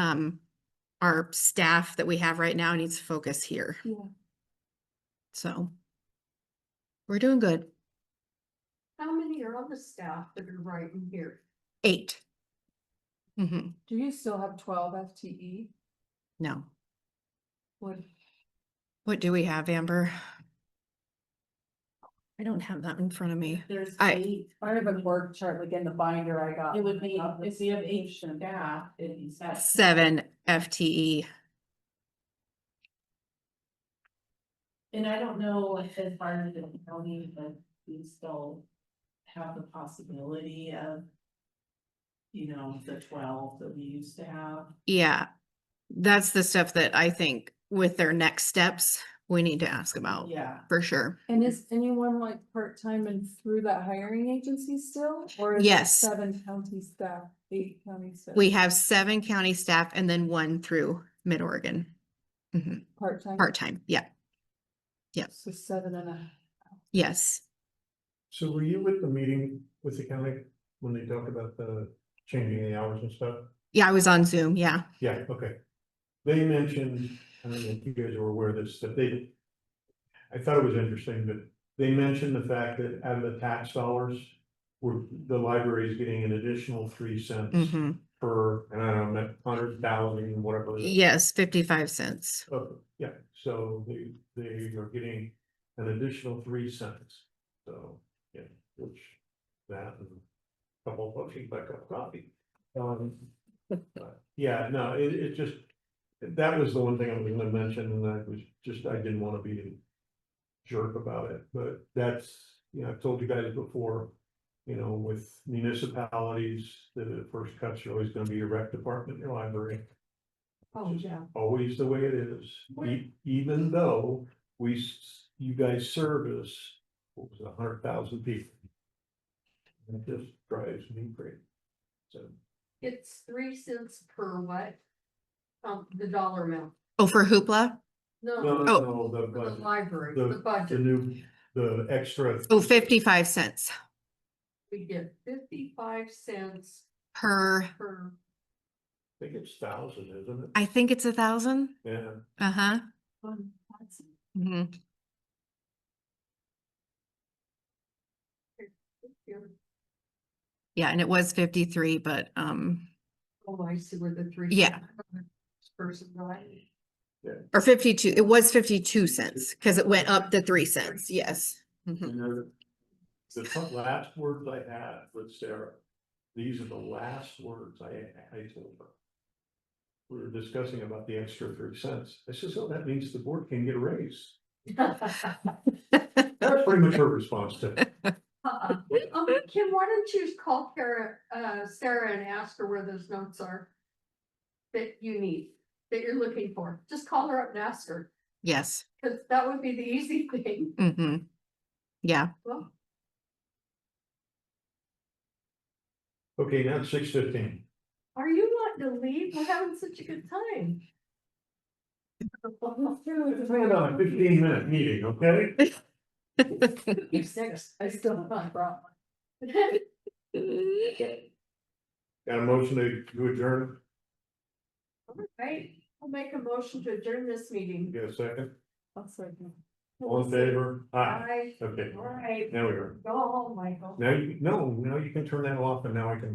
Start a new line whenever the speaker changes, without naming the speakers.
um, our staff that we have right now needs to focus here.
Yeah.
So we're doing good.
How many are on the staff that are writing here?
8 Mm-hmm.
Do you still have twelve E? FTE?
No.
What,
What do we have, Amber? I don't have that in front of me.
There's
I-
eight,
I have a work chart, like in the binder I got.
it would be, if you have eight
Option.
staff, it'd be seven.
Seven E. FTE.
And I don't know if as far as the county, but we still have the possibility of. You know, the twelve that we used to have.
Yeah. That's the stuff that I think with their next steps, we need to ask about
Yeah,
for sure.
And is anyone like part-time and through that hiring agency still? Or is it
Yes.
Seven county staff, eight county staff?
We have seven county staff and then one through Mid Oregon.
Part-time?
Part-time. Yeah.
So seven and a,
Yes.
So were you with the meeting with the county when they talked about the changing the hours and stuff?
Yeah, I was on Zoom. Yeah.
Yeah, okay. They mentioned, I don't know if you guys were aware of this, that they. I thought it was interesting, but they mentioned the fact that out of the tax dollars. Were the library is getting an additional three cents
hmm
per, and I don't know, hundred thousand, whatever. it is.
Yes, fifty-five cents.
Oh, yeah, so they, they are getting an additional three cents, so, yeah, which, that and. a Couple of bucks, you buy a cup of coffee, um, but, yeah, no, it, it just, that was the one thing I was gonna mention, and I was just, I didn't wanna be. a Jerk about it, but that's, you know, I've told you guys before, you know, with municipalities, the first cuts are always gonna be your rec department, your library
oh, yeah,
always the way it is, e- even though we, s- you guys service, what was it, a hundred thousand people. And it just drives me crazy. So,
It's three cents per what? Um, the dollar amount.
Oh, for hoopla?
No,
no, no,
for
no, the,
the
budget,
library,
the-
the
the
budget,
new, the extra.
Oh, fifty-five cents
we get fifty-five cents
per,
per,
I think it's thousand, isn't it?
I think it's a thousand.
Yeah,
Uh-huh.
Um, that's-
hmm Yeah, and it was fifty-three, but, um,
oh, I see where the three.
Yeah.
Person, right?
or fifty-two, it was fifty-two cents because it went up to three cents. Yes. Mhm.
and then the fu- last words I had with Sarah, these are the last words I, I told her. We were discussing about the extra three cents, I says, oh, that means the board can get a raise. That's pretty much her response to. it.
Uh-uh. Um, Kim, why don't you call Kara, uh, Sarah and ask her where those notes are? That you need, that you're looking for, just call her up and ask her,
Yes.
cause that would be the easy thing.
Mm-hmm. Yeah.
Well,
Okay, now it's six fifteen.
Are you wanting to leave? We're having such a good time.
It's been on a fifteen minute meeting, okay?
Next,
I still haven't brought one.
Got a motion to to adjourn,
Right, I'll make a motion to adjourn this meeting.
get a second,
That's right.
all in favor? Aye,
Aye.
okay,
All right,
now we are,
go home, Michael.
now you, no, now you can turn that off and now I can